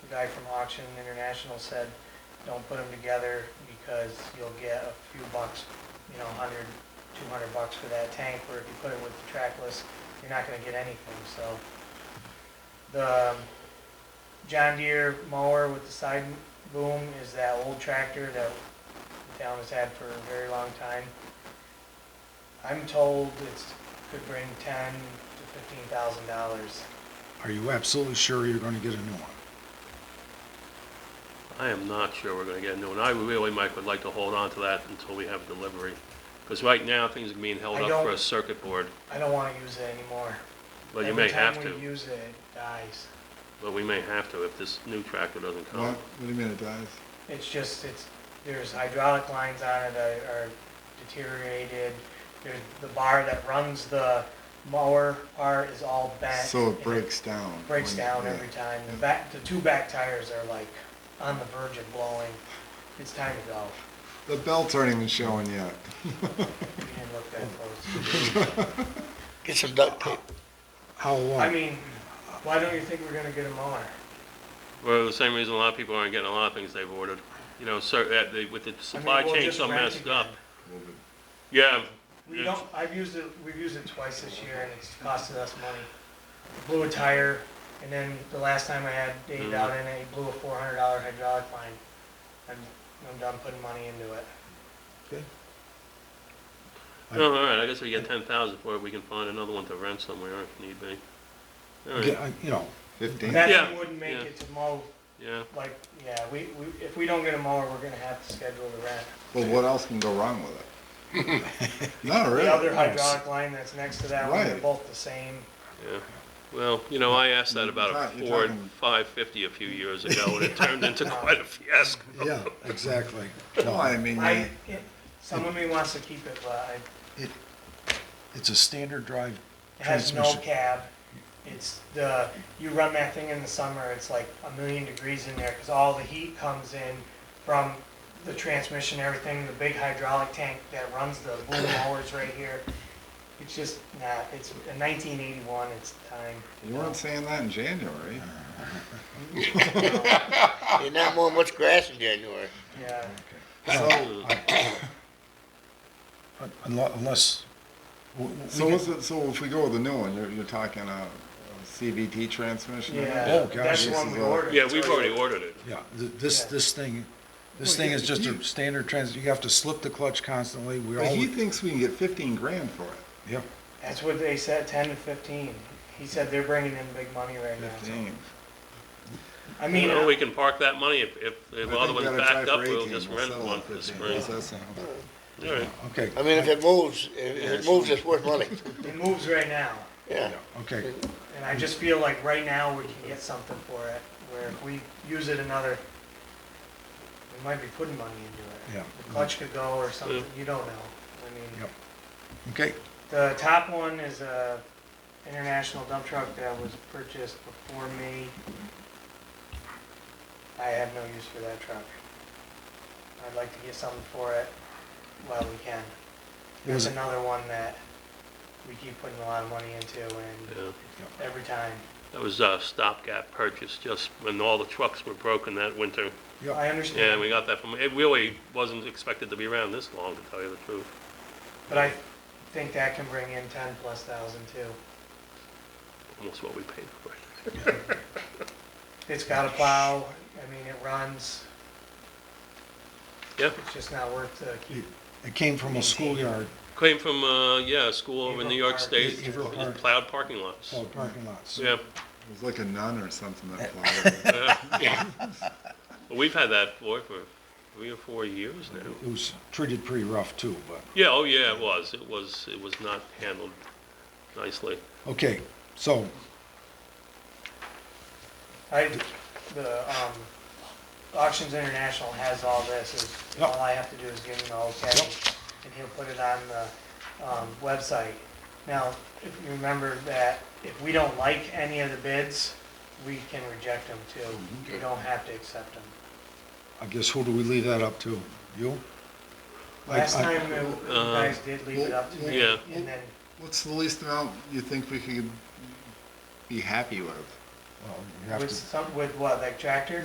guy from Auction International said, don't put them together because you'll get a few bucks, you know, 100, 200 bucks for that tank, where if you put it with the trackless, you're not gonna get anything, so. The um, John Deere mower with the side boom is that old tractor that the town has had for a very long time. I'm told it's, could bring 10 to 15,000 dollars. Are you absolutely sure you're gonna get a new one? I am not sure we're gonna get a new one. I really, Mike, would like to hold on to that until we have delivery. Because right now, things are being held I up for don't- a circuit board, I don't wanna use it anymore. but you may have Every time we to. use it, it dies. But we may have to if this new tractor doesn't come. do you mean it dies? It's just, it's, there's hydraulic lines on it that are deteriorated. There's, the bar that runs the mower part is all bent. So and it breaks down. Eh, Breaks when- down yeah. every time. The back, the two back tires are like on the verge of blowing. It's time to go. The belts aren't even showing yet. We didn't look that close. Get some duct tape. How I long? mean, why don't you think we're gonna get a mower? Well, the same reason a lot of people aren't getting a lot of things they've ordered. You know, cer- that they- with the I mean, supply we'll chain just so rent messed again. up. Yeah, We don't, I've used it, we've used it twice this year and it's costed us money. Blew a tire and then the last time I had Mm. Dave out in it, he blew a four hundred dollar hydraulic line. I'm, I'm done putting money into it. no, all right, I guess we get ten thousand for it. We can find another one to rent somewhere if need be. All Get- right, I- You know, Fifteen? That Yeah, thing wouldn't make yeah. it to mow, yeah. like, yeah, we, we, if we don't get a mower, we're gonna have to schedule the rent. Well, what else can go wrong with it? Not really. The other hydraulic line that's next to that one, they're Right. both the same. Yeah, well, you know, I asked that about a You're Ford talking- 550 a few years ago, and it turned into quite a fiasco. yeah, exactly. No, I mean, I, you- it- some of me wants to keep it, but I It's a standard drive It has no transmission. cab. It's the, you run that thing in the summer, it's like a million degrees in there because all the heat comes in from the transmission, everything, the big hydraulic tank that runs the boom mowers right here. It's just, nah, it's a nineteen eighty-one, it's time. you weren't saying that in January. You're not mowing much grass in January. Yeah, Oh, So, Un- unle- Unless, w- w- so we what's get- it, so if we go with the new one, you're, you're talking uh, a a CVT transmission? yeah, Oh, gosh, that's the this one is we a- ordered. Yeah, we've already ordered it. yeah, th- this, Yeah. this thing, this Well, thing yeah, is just a you- standard trans, you have to slip the clutch constantly, we But he all, thinks we can get fifteen grand for it. yeah. That's what they said, ten to fifteen. He said they're bringing in big money right now. Fifteen. I You mean, know, we can park that money, if, if the I other think we one's gotta try backed for up, we'll 18. just We'll rent settle one on for the 15. spring. How's that sound? All right, Okay, I mean, if it moves, if if it moves, it's worth money. it moves right now. Yeah. okay, And I just feel like right now we can get something for it, where if we use it another, we might be putting money into it. Yeah. The clutch could go or something, you don't know. I mean, Yep. okay, the top one is a international dump truck that was purchased before me. I have no use for that truck. I'd like to get something for it while we can. There's Was it- another one that we keep putting a lot of money into and yeah. every time. That was a stopgap purchase, just when all the trucks were broken that winter. I Yeah, understand, we got that from, it really wasn't expected to be around this long, to tell you the truth. but I think that can bring in ten plus thousand too. Almost what we paid for it. It's got a plow, I mean, it runs, Yeah, it's just not worth to keep. it came from a schoolyard, came from, uh, yeah, a school over in New York Park. State, Eagle it Park. plowed parking lots. Oh, called parking lots. Yeah. It was like a nun or something that plowed it. Yeah. Well, We've had that boy for three or four years now. It was treated pretty rough too, but. Yeah, oh yeah, it was. It was, it was not handled nicely. Okay, so, I, the, um, Auctions International has all this, is, Yep. all I have to do is give him the okay, and he'll put it on the, um, website. Now, if you remember that, if we don't like any of the bids, we can reject them Mm-hmm. too. We don't have to accept them. I guess who do we leave that up to? You? I- Last I- time, it- you guys did leave it up to me, Uh, Yeah. and then What's the least amount you think we could be happy with? Well, you have with to- some, with what, like tractor?